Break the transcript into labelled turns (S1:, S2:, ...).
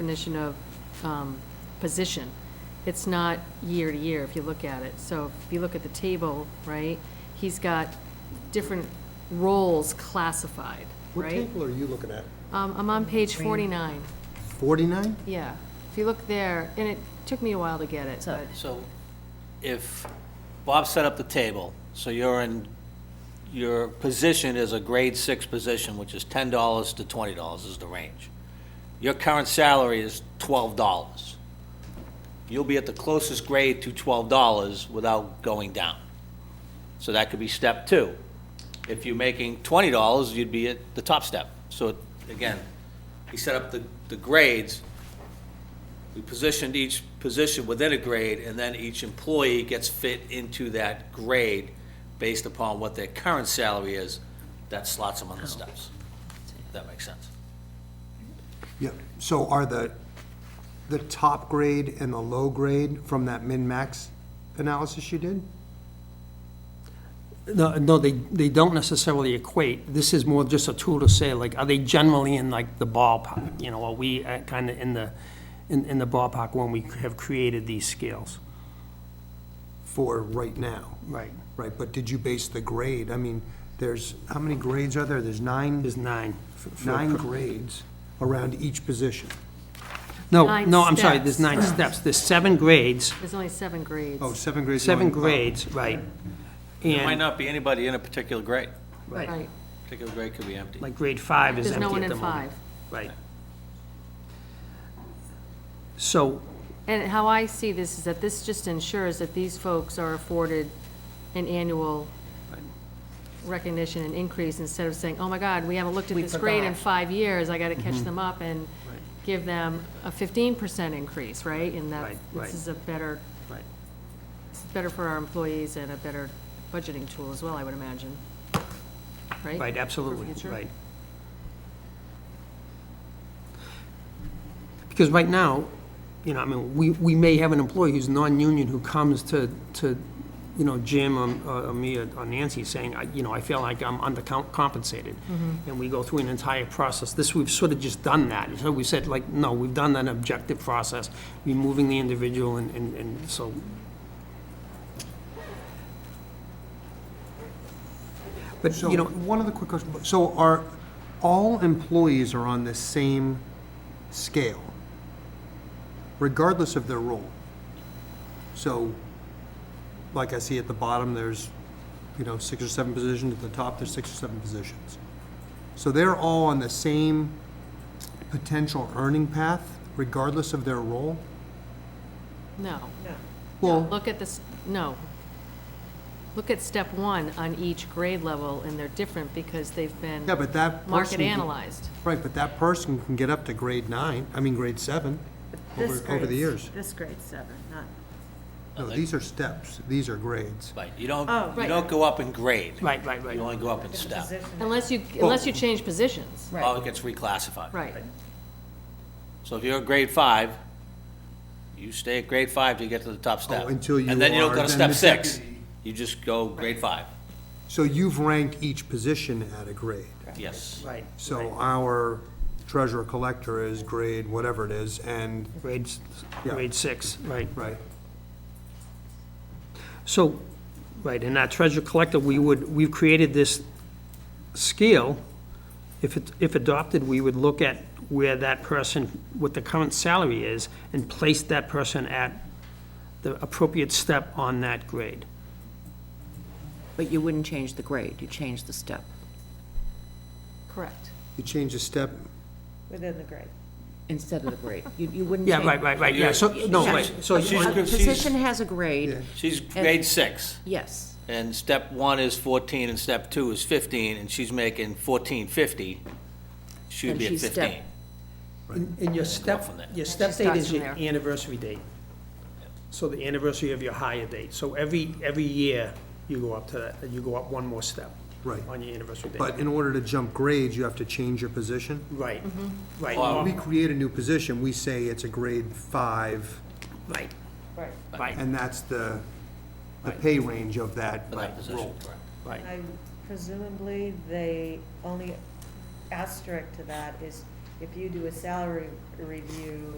S1: definition of um, position. It's not year to year, if you look at it. So if you look at the table, right, he's got different roles classified,
S2: What
S1: right?
S2: table are you looking at?
S1: Um, I'm on page 49,
S2: 49?
S1: yeah. If you look there, and it took me a while to get it, but,
S3: So if Bob set up the table, so you're in, your position is a grade six position, which is ten dollars to twenty dollars is the range. Your current salary is twelve dollars. You'll be at the closest grade to twelve dollars without going down. So that could be step two. If you're making twenty dollars, you'd be at the top step. So again, he set up the, the grades. We positioned each position within a grade, and then each employee gets fit into that grade based upon what their current salary is, that slots them on
S4: Oh.
S3: the steps. If that makes sense.
S2: Yeah, so are the, the top grade and the low grade from that min-max analysis you did?
S4: No, no, they, they don't necessarily equate. This is more just a tool to say, like, are they generally in like the ballpark? You know, are we kind of in the, in, in the ballpark when we have created these scales?
S2: For right now?
S4: Right.
S2: Right, but did you base the grade? I mean, there's, how many grades are there? There's nine,
S4: There's nine. for- for-
S2: nine grades around each position.
S4: No,
S1: Nine
S4: no, I'm sorry, there's
S1: steps.
S4: nine steps. There's seven grades,
S1: there's only seven grades.
S2: Oh, seven grades?
S4: seven
S2: going up.
S4: grades, right.
S3: There might
S4: And,
S3: not be anybody in a particular grade.
S1: Right.
S3: Particular grade could be empty.
S4: like, grade five is
S1: There's
S4: empty
S1: no
S4: at the
S1: one in
S4: moment.
S1: five.
S4: Right. So,
S1: And how I see this is that this just ensures that these folks are afforded an annual recognition and increase instead of saying, oh my God, we haven't looked at this grade in five years, I gotta
S4: Mm-hmm.
S1: catch them up and give them a fifteen percent increase, right? And that,
S4: Right, right.
S1: this is a better,
S4: right.
S1: it's better for our employees and a better budgeting tool as well, I would imagine. Right?
S4: Right, absolutely,
S1: future?
S4: right. Because right now, you know, I mean, we, we may have an employee who's non-union who comes to, to, you know, Jim or- or me uh, or Nancy saying, I, you know, I feel like I'm undercompensated.
S1: Mm-hmm.
S4: And we go through an entire process. This, we've sort of just done that. So we said like, no, we've done an objective process, removing the individual and, and, and so. But,
S2: So,
S4: you know,
S2: one other quick question. So are, all employees are on the same scale, regardless of their role? So, like I see at the bottom, there's, you know, six or seven positions. At the top, there's six or seven positions. So they're all on the same potential earning path, regardless of their role?
S1: No.
S2: Well,
S1: Look at this, no. Look at step one on each grade level, and they're different because they've been
S2: yeah, but that person.
S1: market
S2: can-
S1: analyzed.
S2: Right, but that person can get up to grade nine, I mean, grade seven,
S5: This
S2: over, over the
S5: grade's-
S2: years.
S5: This grade's seven, not,
S2: No, these are steps, these are grades.
S3: Right, you don't,
S5: Oh,
S3: you
S1: right.
S3: don't go up in grade.
S4: right, right, right.
S3: You only go up in
S5: the
S3: step.
S5: position.
S1: Unless you, unless you change positions.
S3: Oh, it gets reclassified.
S1: Right,
S3: So if you're a grade five, you stay at grade five till you get to the top step.
S2: Oh, until you
S3: And then you don't
S2: are
S3: go to
S2: then
S3: step
S2: the
S3: six.
S2: deputy.
S3: You just go grade five.
S2: So you've ranked each position at a grade.
S3: Yes.
S4: Right.
S2: So our treasurer collector is grade whatever it is, and,
S4: Grade, s-
S2: Yeah.
S4: grade six, right.
S2: right,
S4: So, right, in our treasure collector, we would, we've created this scale. If it, if adopted, we would look at where that person, what the current salary is, and place that person at the appropriate step on that grade.
S6: But you wouldn't change the grade, you'd change the step.
S1: correct.
S2: you change a step,
S5: Within the grade.
S6: Instead of the grade. You, you wouldn't
S4: Yeah,
S6: change-
S4: right, right, right, yeah, so, no, right, so,
S3: She's-
S6: A
S3: she's-
S6: position has a grade,
S3: She's grade six,
S6: yes.
S3: and step one is fourteen, and step two is fifteen, and she's making fourteen fifty, she would
S6: And
S3: be at
S6: she's step-
S3: fifteen.
S4: and and your step,
S3: from there.
S4: your step
S1: She
S4: date
S1: starts
S4: is
S1: from
S4: your
S1: there.
S4: anniversary date. So the anniversary of your higher date, so every, every year, you go up to that, you go up one more step.
S2: Right.
S4: On your anniversary date.
S2: but in order to jump grades, you have to change your position?
S4: Right,
S1: Mm-hmm.
S4: right,
S3: Well,
S2: We
S4: or-
S2: create a new position, we say it's a grade five,
S4: right,
S5: Right.
S4: right,
S2: and that's the, the pay range of that
S3: For that position,
S2: role.
S3: correct.
S4: right.
S5: I presumably, the only asterisk to that is if you do a salary review